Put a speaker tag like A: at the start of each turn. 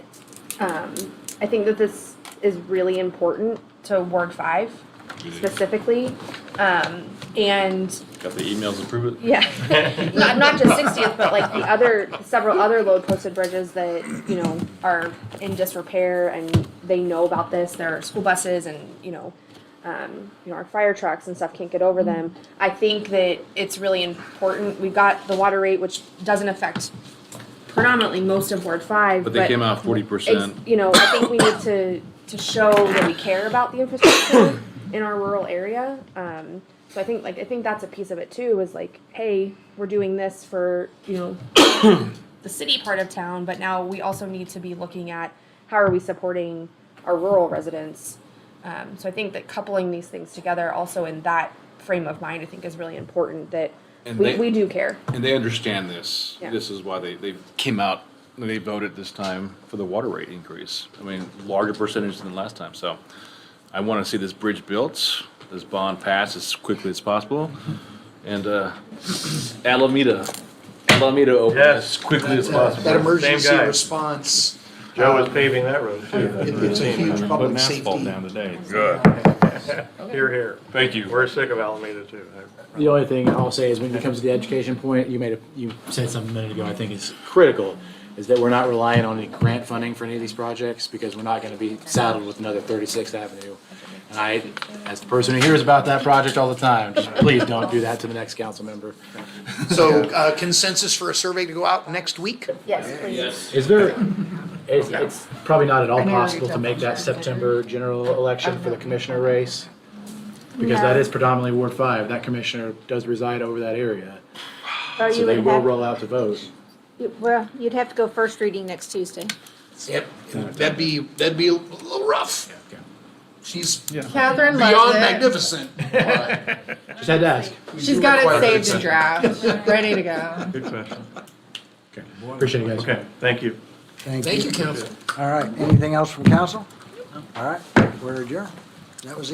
A: Um, I think that this is really important to Ward Five specifically. Um, and
B: Got the emails to prove it?
A: yeah, not, not just 60th, but like the other several other load posted bridges that you know are in disrepair, and they know about this. There are school buses, and you know, um, you know, our fire trucks and stuff can't get over them. I think that it's really important. We've got the water rate, which doesn't affect predominantly most of Ward Five,
B: But they came out forty percent.
A: it's- You know, I think we need to, to show that we care about the infrastructure in our rural area. Um, so I think, like, I think that's a piece of it too, is like, hey, we're doing this for, you know, the city part of town, but now we also need to be looking at how are we supporting our rural residents? Um, so I think that coupling these things together also in that frame of mind, I think is really important that
B: And
A: we,
B: they-
A: we do care.
B: And they understand this.
A: Yeah.
B: This is why they, they came out, and they voted this time for the water rate increase. I mean, larger percentage than last time, so I want to see this bridge built, this bond passed as quickly as possible, and uh, Alameda, Alameda open as
C: Yes.
B: quickly as
D: That
B: possible.
D: emergency
C: Same guy.
D: response,
C: Joe was paving that road
D: it-
C: too.
D: it's a huge
E: Putting
D: public
E: asphalt
D: safety.
E: down today.
C: Here, here.
B: Thank you.
C: We're sick of Alameda too.
E: The only thing I'll say is when it comes to the education point, you made a, you said something a minute ago, I think is critical, is that we're not relying on any grant funding for any of these projects because we're not gonna be saddled with another thirty-sixth Avenue. And I, as the person who hears about that project all the time, just please don't do that to the next council member.
D: So uh, consensus for a survey to go out next week?
A: Yes, please.
E: Is there, it's, it's probably not at all possible to make that September general election for the commissioner race? Because that is predominantly Ward Five, that commissioner does reside over that area,
F: Or
E: so
F: Oh, you
E: they
F: would
E: will
F: have,
E: roll out the vote.
F: you- well, you'd have to go first reading next Tuesday.
D: Yep. That'd be, that'd be a little rough. She's
G: Catherine
D: beyond
G: loves it.
D: magnificent.
E: Just had to ask.
G: She's got it saved in draft, ready to go.
C: Good question.
E: Appreciate it, guys.
C: Okay, thank you.
D: Thank you, council.
H: All right, anything else from council? All right, we're adjourned.
D: That was